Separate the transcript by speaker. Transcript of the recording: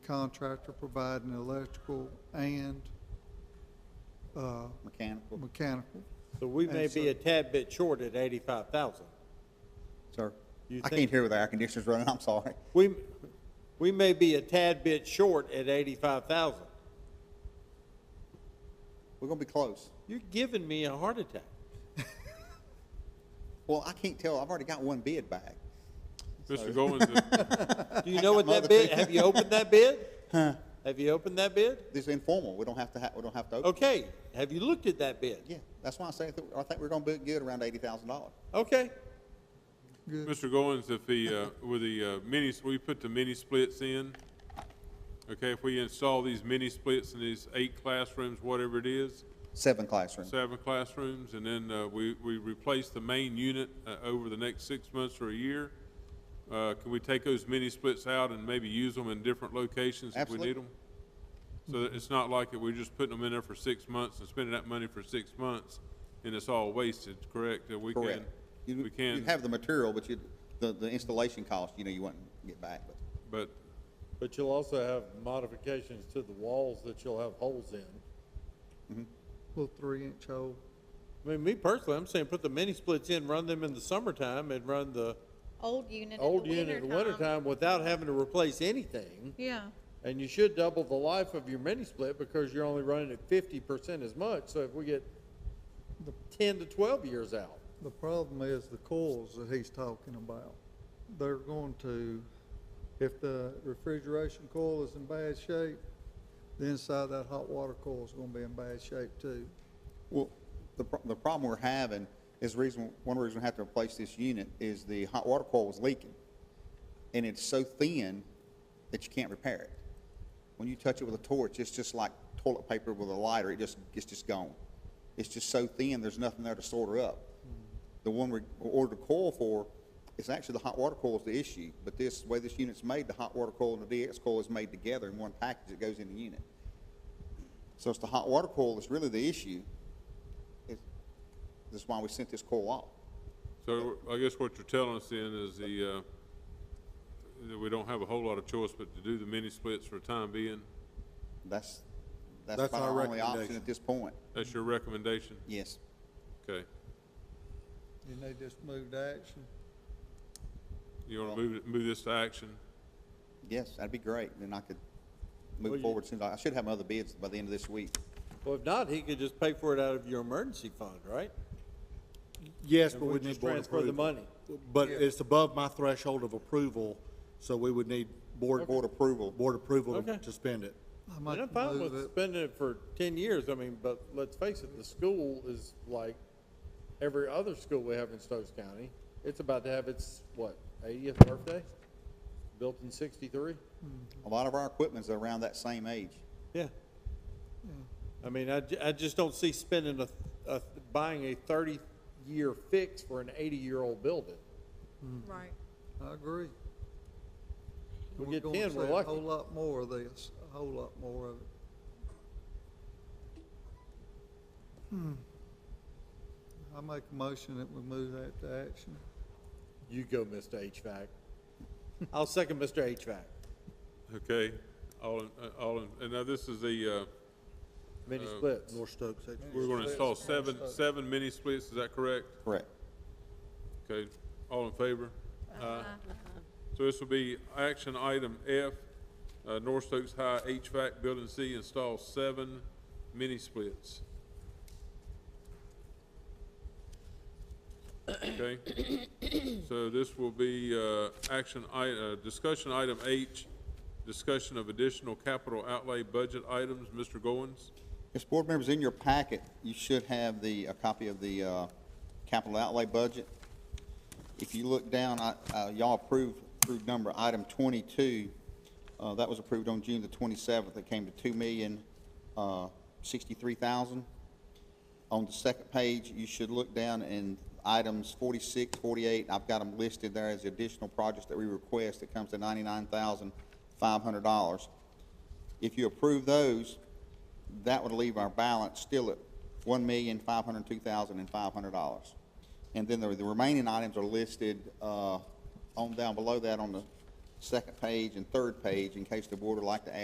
Speaker 1: contractor providing electrical and uh,
Speaker 2: Mechanical,
Speaker 1: mechanical.
Speaker 3: So we may
Speaker 1: And so-
Speaker 3: be a tad bit short at eighty-five thousand.
Speaker 2: sir.
Speaker 3: You
Speaker 2: I
Speaker 3: think-
Speaker 2: can't hear with the air conditioners running, I'm sorry.
Speaker 3: We, we may be a tad bit short at eighty-five thousand.
Speaker 2: We're gonna be close.
Speaker 3: You're giving me a heart attack.
Speaker 2: Well, I can't tell, I've already got one bid back.
Speaker 4: Mr. Goins, is-
Speaker 3: Do you know what that bid, have you opened that bid? Have you opened that bid?
Speaker 2: This is informal, we don't have to ha, we don't have to open.
Speaker 3: Okay, have you looked at that bid?
Speaker 2: Yeah, that's why I say, I think- I think we're gonna be good around eighty thousand dollars.
Speaker 3: Okay,
Speaker 4: Mr. Goins, if the, uh, with the uh, mini, we put the mini splits in, okay, if we install these mini splits in these eight classrooms, whatever it is,
Speaker 2: Seven classrooms.
Speaker 4: seven classrooms, and then uh, we, we replace the main unit uh, over the next six months or a year, uh, can we take those mini splits out and maybe use them in different locations if we
Speaker 2: Absolutely.
Speaker 4: need them? So that it's not like that we're just putting them in there for six months and spending that money for six months, and it's all wasted, correct? That we can,
Speaker 2: Correct. You-
Speaker 4: we can.
Speaker 2: You'd have the material, but you, the, the installation cost, you know, you wouldn't get back, but
Speaker 4: But,
Speaker 5: But you'll also have modifications to the walls that you'll have holes in.
Speaker 1: Little three-inch hole.
Speaker 3: I mean, me personally, I'm saying put the mini splits in, run them in the summertime and run the
Speaker 6: Old unit in the
Speaker 5: Old
Speaker 6: wintertime.
Speaker 5: unit in the wintertime without having to replace anything.
Speaker 6: Yeah,
Speaker 5: And you should double the life of your mini split because you're only running at fifty percent as much. So if we get ten to twelve years out,
Speaker 1: The problem is the coils that he's talking about. They're going to, if the refrigeration coil is in bad shape, the inside of that hot water coil is gonna be in bad shape too.
Speaker 2: Well, the, pro- the problem we're having is reason, one reason we have to replace this unit is the hot water coil was leaking. And it's so thin that you can't repair it. When you touch it with a torch, it's just like toilet paper with a lighter, it just, it's just gone. It's just so thin, there's nothing there to sort her up. The one we ordered a coil for, it's actually the hot water coil is the issue, but this, the way this unit's made, the hot water coil and the DX coil is made together in one package that goes in the unit. So it's the hot water coil that's really the issue. It- That's why we sent this coil off.
Speaker 4: so I guess what you're telling us then is the, uh, that we don't have a whole lot of choice but to do the mini splits for the time being.
Speaker 2: That's, that's
Speaker 7: That's
Speaker 2: about
Speaker 7: our
Speaker 2: our only option
Speaker 7: recommendation.
Speaker 2: at this point.
Speaker 4: That's your recommendation?
Speaker 2: Yes.
Speaker 4: Okay.
Speaker 1: And they just moved to action.
Speaker 4: You want to move, it- move this to action?
Speaker 2: Yes, that'd be great. Then I could
Speaker 3: Well,
Speaker 2: move
Speaker 3: you-
Speaker 2: forward soon. I I should have my other bids by the end of this week.
Speaker 3: Well, if not, he could just pay for it out of your emergency fund, right?
Speaker 7: Yes,
Speaker 5: And
Speaker 7: but
Speaker 5: we
Speaker 7: we
Speaker 5: just
Speaker 7: need board
Speaker 5: transfer the
Speaker 7: approval.
Speaker 5: money.
Speaker 7: But it's above my threshold of approval, so we would need board,
Speaker 2: Board approval.
Speaker 7: board approval
Speaker 3: Okay.
Speaker 7: to- to spend it.
Speaker 1: I
Speaker 5: And I'm
Speaker 1: might
Speaker 5: fine
Speaker 1: move
Speaker 5: with
Speaker 1: it.
Speaker 5: spending it for ten years, I mean, but let's face it, the school is like every other school we have in Stokes County. It's about to have its, what, eightieth birthday? Built in sixty-three?
Speaker 2: A lot of our equipment's around that same age.
Speaker 3: Yeah. I mean, I, ju- I just don't see spending a, a, buying a thirty-year fix for an eighty-year-old building.
Speaker 6: right.
Speaker 1: I agree.
Speaker 5: We
Speaker 1: We're
Speaker 5: get
Speaker 1: gonna
Speaker 5: 10, we're
Speaker 1: see a
Speaker 5: lucky.
Speaker 1: Whole lot more of this, a whole lot more of it. I make a motion that we move that to action.
Speaker 5: You go, Mr. HVAC.
Speaker 3: I'll second Mr. HVAC.
Speaker 4: Okay. All, in uh, all, in- and now this is the, uh,
Speaker 5: Mini splits.
Speaker 7: North Stokes, eh?
Speaker 4: we're going to install seven, seven mini splits, is that correct?
Speaker 2: Correct.
Speaker 4: Okay, all in favor? Aye. So this will be action item F, uh, North Stokes High HVAC Building C install seven mini splits. Okay, so this will be, uh, action i, uh, discussion item H, discussion of additional capital outlay budget items, Mr. Goins?
Speaker 2: Yes, board members, in your packet, you should have the, a copy of the uh, capital outlay budget. If you look down, I- uh, y'all approved, approved number item 22, uh, that was approved on June the 27th, it came to $2,063,000. On the second page, you should look down in items 46, 48, I've got them listed there as additional projects that we request, it comes to $99,500. If you approve those, that would leave our balance still at one million, five hundred two thousand and five hundred dollars. And then the, the remaining items are listed, uh, on down below that on the second page and third page in case the board would like to add